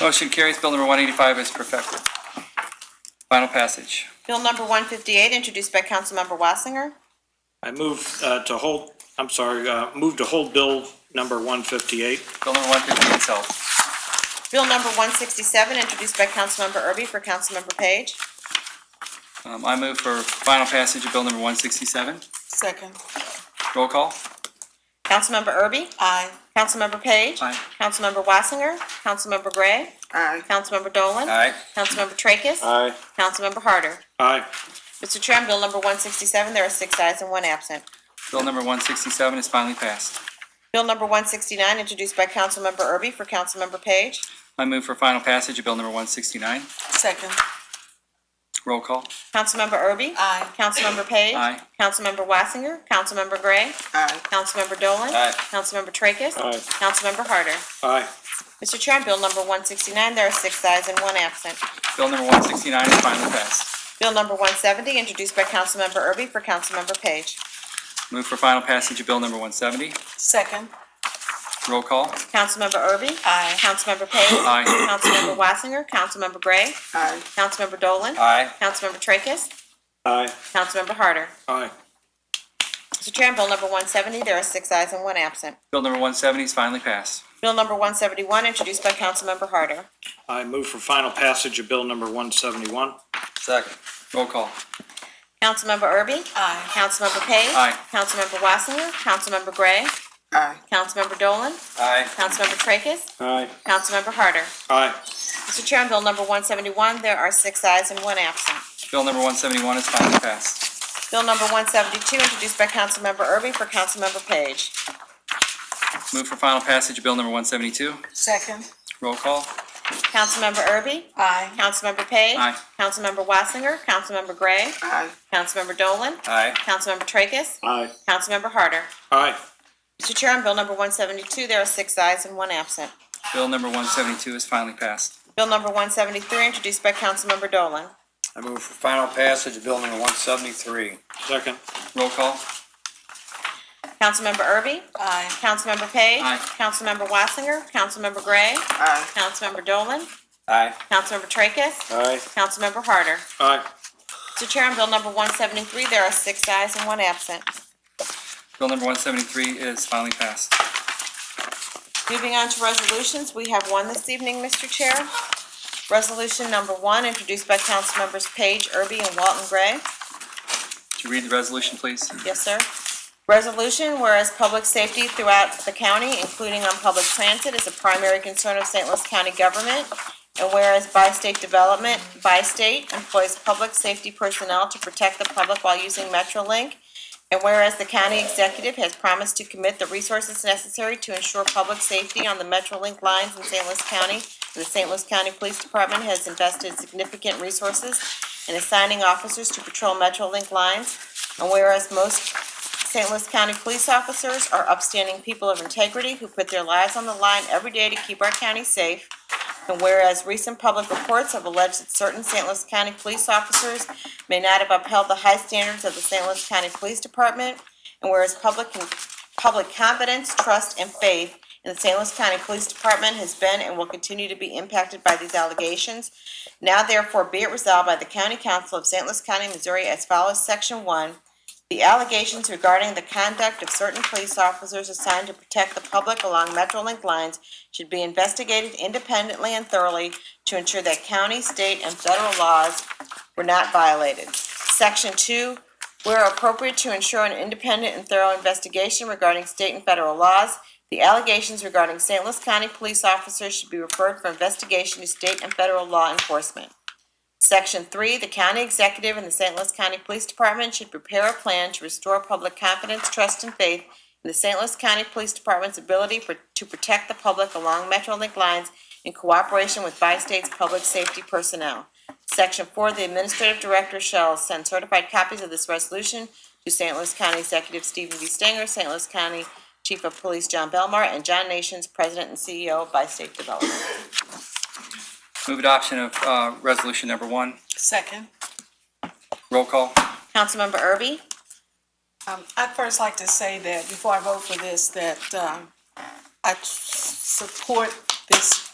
Motion carries. Bill number 185 is perfected. Final passage. Bill number 158, introduced by Councilmember Wassinger. I move uh, to hold, I'm sorry, uh, move to hold bill number 158. Bill number 158 itself. Bill number 167, introduced by Councilmember Erby for Councilmember Page. Um, I move for final passage of bill number 167. Second. Roll call. Councilmember Erby? Aye. Councilmember Page? Aye. Councilmember Wassinger? Councilmember Gray? Aye. Councilmember Dolan? Aye. Councilmember Tracus? Aye. Councilmember Harder? Aye. Mr. Chair, on bill number 167, there are six ayes and one absent. Bill number 167 is finally passed. Bill number 169, introduced by Councilmember Erby for Councilmember Page. I move for final passage of bill number 169. Second. Roll call. Councilmember Erby? Aye. Councilmember Page? Aye. Councilmember Wassinger? Councilmember Gray? Aye. Councilmember Dolan? Aye. Councilmember Tracus? Aye. Councilmember Harder? Aye. Mr. Chair, on bill number 169, there are six ayes and one absent. Bill number 169 is finally passed. Bill number 170, introduced by Councilmember Erby for Councilmember Page. Move for final passage of bill number 170. Second. Roll call. Councilmember Erby? Aye. Councilmember Page? Aye. Councilmember Wassinger? Councilmember Gray? Aye. Councilmember Dolan? Aye. Councilmember Tracus? Aye. Councilmember Harder? Aye. Mr. Chair, on bill number 170, there are six ayes and one absent. Bill number 170 is finally passed. Bill number 171, introduced by Councilmember Harder. I move for final passage of bill number 171. Second. Roll call. Councilmember Erby? Aye. Councilmember Page? Aye. Councilmember Wassinger? Councilmember Gray? Aye. Councilmember Dolan? Aye. Councilmember Tracus? Aye. Councilmember Harder? Aye. Mr. Chair, on bill number 171, there are six ayes and one absent. Bill number 171 is finally passed. Bill number 172, introduced by Councilmember Erby for Councilmember Page. Move for final passage of bill number 172. Second. Roll call. Councilmember Erby? Aye. Councilmember Page? Aye. Councilmember Wassinger? Councilmember Gray? Aye. Councilmember Dolan? Aye. Councilmember Tracus? Aye. Councilmember Harder? Aye. Mr. Chair, on bill number 172, there are six ayes and one absent. Bill number 172 is finally passed. Bill number 173, introduced by Councilmember Dolan. I move for final passage of bill number one seventy-three. Second. Roll call. Councilmember Erby? Aye. Councilmember Page? Aye. Councilmember Wassinger? Councilmember Gray? Aye. Councilmember Dolan? Aye. Councilmember Tracus? Aye. Councilmember Harder? Aye. Mr. Chair, on bill number 173, there are six ayes and one absent. Bill number 173 is finally passed. Moving on to resolutions, we have one this evening, Mr. Chair. Resolution number one, introduced by Councilmembers Page, Irby, and Walton Gray. Would you read the resolution, please? Yes, sir. Resolution, whereas public safety throughout the county, including on public transit, is a primary concern of St. Louis County government, and whereas bi-state development, bi-state employs public safety personnel to protect the public while using MetroLink, and whereas the county executive has promised to commit the resources necessary to ensure public safety on the MetroLink lines in St. Louis County, the St. Louis County Police Department has invested significant resources in assigning officers to patrol MetroLink lines, and whereas most St. Louis County police officers are upstanding people of integrity who put their lives on the line every day to keep our county safe. And whereas recent public reports have alleged that certain St. Louis County police officers may not have upheld the high standards of the St. Louis County Police Department, and whereas public, public confidence, trust, and faith in the St. Louis County Police Department has been and will continue to be impacted by these allegations, now therefore be it resolved by the County Council of St. Louis County, Missouri as follows, Section One, the allegations regarding the conduct of certain police officers assigned to protect the public along Metrolink lines should be investigated independently and thoroughly to ensure that county, state, and federal laws were not violated. Section two, where appropriate to ensure an independent and thorough investigation regarding state and federal laws, the allegations regarding St. Louis County police officers should be referred for investigation to state and federal law enforcement. Section three, the county executive and the St. Louis County Police Department should prepare a plan to restore public confidence, trust, and faith in the St. Louis County Police Department's ability for, to protect the public along Metrolink lines in cooperation with bi-state's public safety personnel. Section four, the administrative director shall send certified copies of this resolution to St. Louis County Executive Stephen B. Stenger, St. Louis County Chief of Police John Belmar, and John Nations, President and CEO of Bi-State Development. Move adoption of uh, resolution number one. Second. Roll call. Councilmember Erby? Um, I'd first like to say that before I vote for this, that, um, I support this